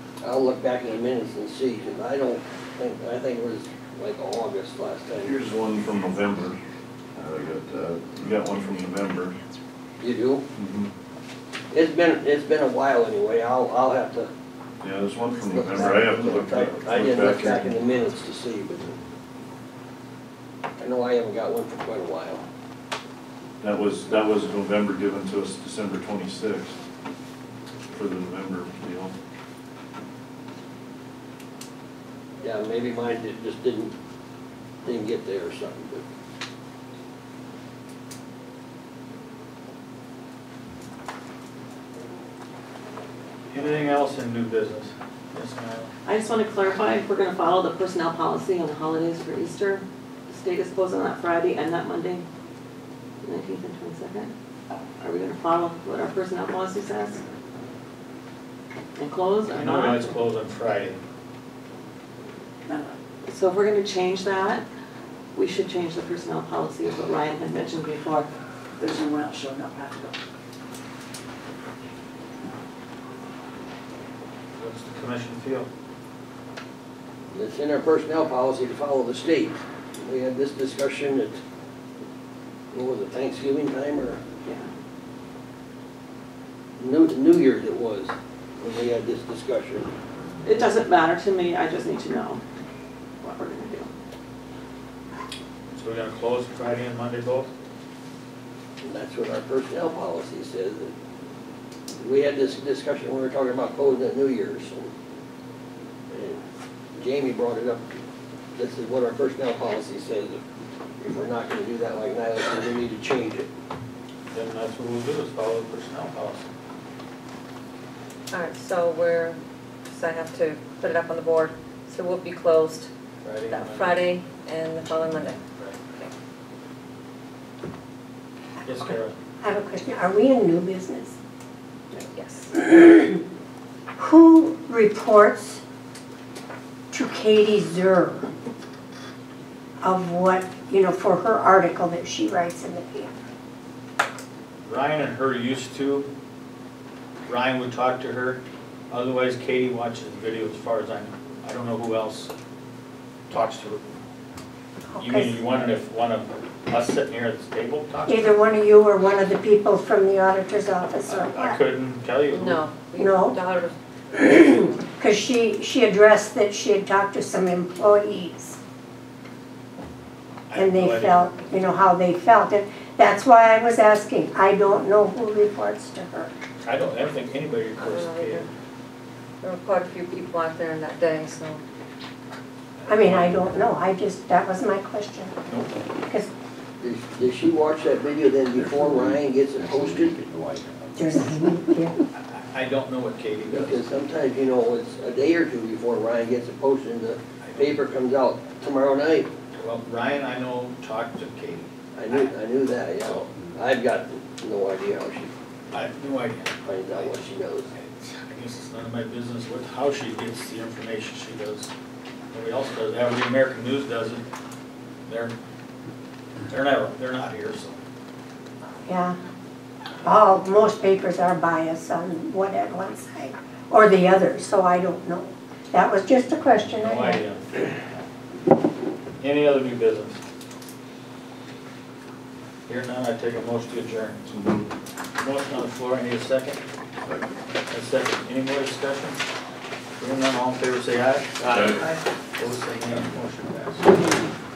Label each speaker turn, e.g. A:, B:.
A: I'll look back in the minutes and see, 'cause I don't think, I think it was like August last time.
B: Here's one from November. Uh, I got, uh, you got one from November.
A: You do? It's been, it's been a while anyway, I'll, I'll have to.
B: Yeah, there's one from
A: look
B: November. I
A: back.
B: have to look back.
A: I didn't look back in
B: here.
A: the minutes to see, but I know I haven't got one for quite a while.
B: That was, that was November given to us December twenty-sixth for the November deal.
A: Yeah, maybe mine did- just didn't, didn't get there or something, but.
C: Anything else in new business? Yes, ma'am.
D: I just want to clarify, if we're going to follow the personnel policy on the holidays for Easter, the state is closed on that Friday and that Monday, nineteenth and twenty-second. Are we going to follow what our personnel policy says? And close
C: I
D: or
C: know
D: not?
C: it's closed on Friday.
D: So if we're going to change that, we should change the personnel policy, is what Ryan had mentioned before.
E: There's no one else showing up, I have to go.
C: What's the commission feel?
A: It's in our personnel policy to follow the state. We had this discussion at, what was it, Thanksgiving time or
D: Yeah.
A: New, New Year's it was, when we had this discussion.
D: It doesn't matter to me, I just need to know what we're going to do.
C: So we're gonna close Friday and Monday both?
A: And that's what our personnel policy says. that- We had this discussion when we were talking about closing at New Year's. and- and Jamie brought it up. This is what our personnel policy says. If we're not gonna do that like Nyla said, we need to change it.
C: Then that's what we'll do, is follow the personnel policy.
F: All right, so we're, so I have to put it up on the board, so we'll be closed
C: Friday and
F: that
C: Monday.
F: Friday and the following Monday.
C: Right.
F: Okay.
C: Yes, Kara.
G: I have a question. Are we in new business?
F: Yes.
G: Who reports to Katie Zur of what, you know, for her article that she writes in the paper?
C: Ryan and her used to. Ryan would talk to her, otherwise Katie watches the video as far as I know. I don't know who else talks to her. You mean, you wondered if one of us sitting here at this table talks to her?
G: Either one of you or one of the people from the auditor's office or
C: I
G: what?
C: couldn't tell you. who.
F: No. we-
G: No.
F: Daughter,
G: Because she, she addressed that she had talked to some employees
C: I have
G: and
C: no
G: they
C: idea.
G: felt, you know, how they felt. And that's why I was asking. I don't know who reports to her.
C: I don't, I don't think anybody records
F: I don't know
C: Katie.
F: either. there were quite a few people out there on that day, so.
G: I mean, I don't know. I just, that was my question.
C: Nope.
G: Because
A: Does, does she watch that video then before Ryan gets it posted?
G: There's, yeah,
C: I- I don't know what Katie
A: Because
C: does.
A: sometimes, you know, it's a day or two before Ryan gets it posted and the paper comes out tomorrow night.
C: Well, Ryan, I know, talked to Katie.
A: I knew, I knew that, yeah. I've got no idea how she
C: I have no idea.
A: finds out what she knows.
C: It's- I guess it's none of my business what, how she gets the information she does. Nobody else does, every American News does it. They're, they're never, they're not here, so.
G: yeah. All, most papers are biased on one at one side or the other, so I don't know. That was just a question I
C: No
G: had.
C: idea. Any other new business? Here none, I take a motion to adjourn. Motion on the floor, I need a second. A second, any more discussion? Hearing none, all in favor, say aye.
B: Aye.
C: Opposed, say nay, motion passed.